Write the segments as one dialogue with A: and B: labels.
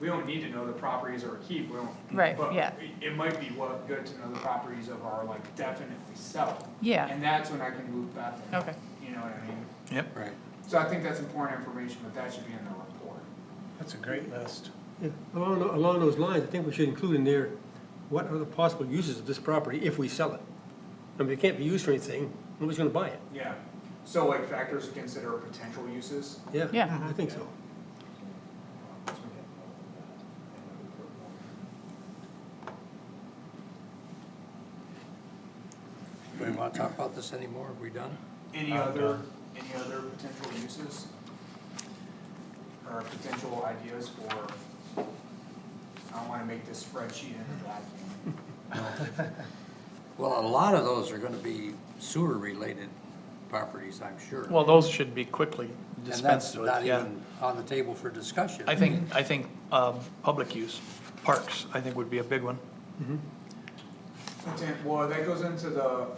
A: we don't need to know the properties or keep, we don't.
B: Right,
A: but
B: yeah.
A: it- It might be what, good to know the properties of our, like, definitely sell.
B: Yeah.
A: And that's when I can move back to.
B: Okay.
A: You know what I mean?
C: Yep,
D: Right.
A: So I think that's important information, but that should be in the report.
C: that's a great list.
E: Yeah, Along, tho- along those lines, I think we should include in there, what are the possible uses of this property if we sell it? I mean, it can't be used for anything, nobody's gonna buy it,
A: Yeah. So like factors to consider potential uses.
E: yeah.
B: Yeah.
E: I think so.
D: Do we want to talk about this anymore? Are we done?
A: Any other, any other potential uses? Or potential ideas for, I don't wanna make this spreadsheet in a vacuum.
D: Well, a lot of those are gonna be sewer-related properties, I'm sure.
F: Well, those should be quickly
D: And that's
F: dispensed with,
D: not
F: yeah.
D: even on the table for discussion.
F: I think, I think, um, public use, parks, I think would be a big one.
A: Potent, well, that goes into the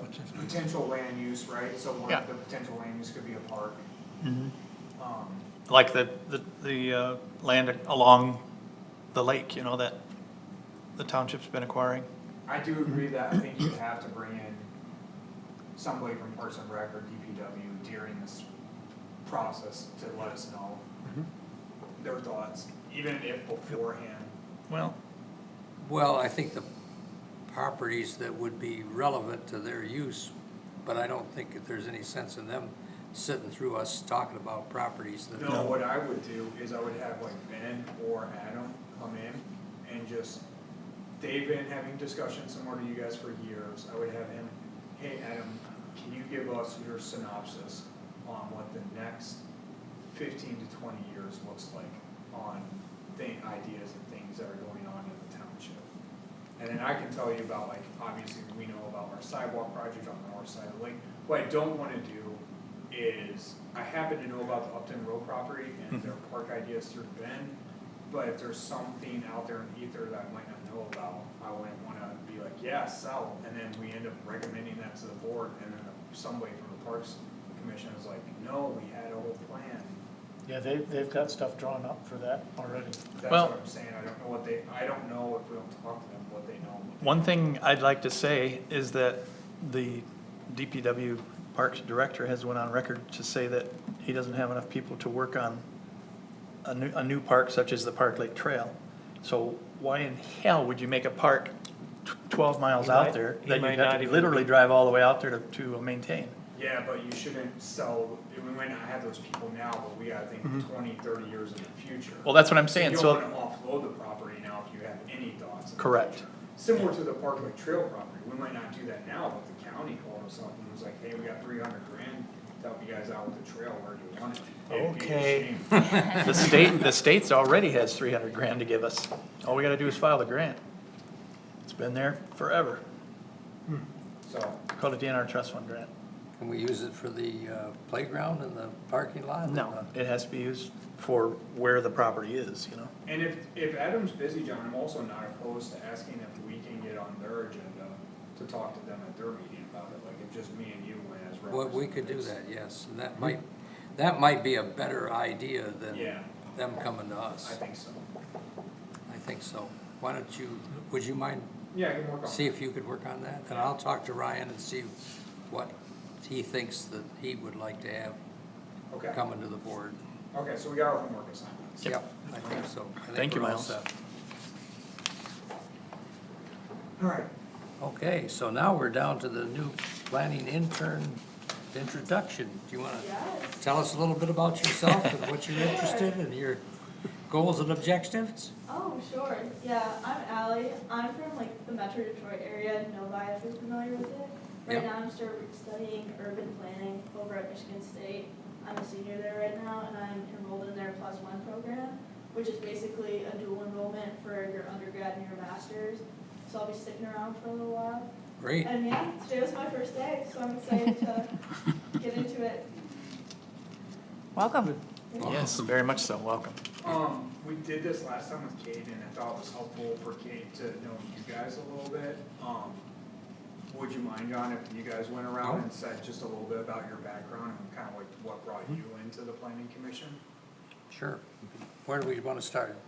A: potential land use, right? So one
F: Yeah.
A: of the potential land use could be a park. Um,
F: Like the, the, the, uh, land along the lake, you know, that the township's been acquiring.
A: I do agree that I think you have to bring in somebody from Parks and Rec or DPW during this process to let us know their thoughts, even if beforehand.
F: Well,
D: Well, I think the properties that would be relevant to their use, but I don't think that there's any sense in them sitting through us talking about properties that.
A: No, what I would do is I would have like Ben or Adam come in and just, they've been having discussions similar to you guys for years. I would have him, hey, Adam, can you give us your synopsis on what the next fifteen to twenty years looks like on thing, ideas and things that are going on in the township? And then I can tell you about like, obviously, we know about our sidewalk project on the north side of the lake. What I don't wanna do is, I happen to know about the Upton Road property and their park ideas through Ben. But if there's something out there in the ether that I might not know about, I wouldn't wanna be like, yeah, sell, and then we end up recommending that to the board, and then somebody from the Parks Commission is like, no, we had a whole plan.
G: Yeah, they, they've got stuff drawn up for that already.
A: That's
F: Well-
A: what I'm saying, I don't know what they, I don't know if we don't talk to them, what they know. what they
F: one thing I'd like to say is that the DPW Parks Director has went on record to say that he doesn't have enough people to work on a new, a new park such as the Park Lake Trail. So why in hell would you make a park tw- twelve miles
G: He
F: out
G: might-
F: there
G: he
F: that
G: might
F: you'd
G: not
F: have to
G: even
F: literally
G: be-
F: drive all the way out there to, to maintain?
A: Yeah, but you shouldn't sell, we might not have those people now, but we gotta think 20, 30 years in the future.
F: Mm-hmm. Well, that's what I'm saying,
A: You
F: so,
A: don't wanna offload the property now if you have any thoughts. of the
F: Correct.
A: future. Similar to the Park Lake Trail property, we might not do that now, but the county called us up and was like, hey, we got three hundred grand to help you guys out with the trail, where do you want it? It'd be a
F: Okay.
A: shame.
F: the state, the state's already has three hundred grand to give us. All we gotta do is file the grant. It's been there forever,
A: So,
F: called a DNR trust fund grant.
D: Can we use it for the uh, playground and the parking lot? and
F: No,
D: the-
F: it has to be used for where the property is, you know?
A: and if, if Adam's busy, John, I'm also not opposed to asking if we can get on their agenda to talk to them at their meeting about it, like if just me and you went as
D: Well,
A: representatives.
D: we could do that, yes, and that might, that might be a better idea than
A: Yeah.
D: them coming to
A: I
D: us.
A: think so.
D: I think so. Why don't you, would you mind,
A: Yeah, I can work on
D: see
A: it.
D: if you could work on that? And I'll talk to Ryan and see what he thinks that he would like to have
A: Okay,
D: coming to the board.
A: okay, so we got our homework assignments.
D: Yep, I think so. I think
F: Thank you,
D: we're all
F: Miles.
D: set.
A: Alright,
D: Okay, so now we're down to the new planning intern introduction. Do you want to tell us a little bit about yourself and what you're interested in, your goals and objectives?
H: Oh, sure. Yeah, I'm Allie. I'm from like the Metro Detroit area, Novi, if you're familiar with it. Right
D: Yeah.
H: now, I'm still studying urban planning over at Michigan State. I'm a senior there right now, and I'm enrolled in their Plus One program, which is basically a dual enrollment for your undergrad and your master's. So I'll be sticking around for a little while.
D: Great.
H: And yeah, today was my first day, so I'm excited to get into it.
B: Welcome.
F: Yes, very much so, welcome.
A: um, we did this last time with Kate, and I thought it was helpful for Kate to know you guys a little bit. Um, would you mind, John, if you guys went around and said just a little bit about your background and kind of like what brought you into the planning commission?
D: Sure. Where do we want to start?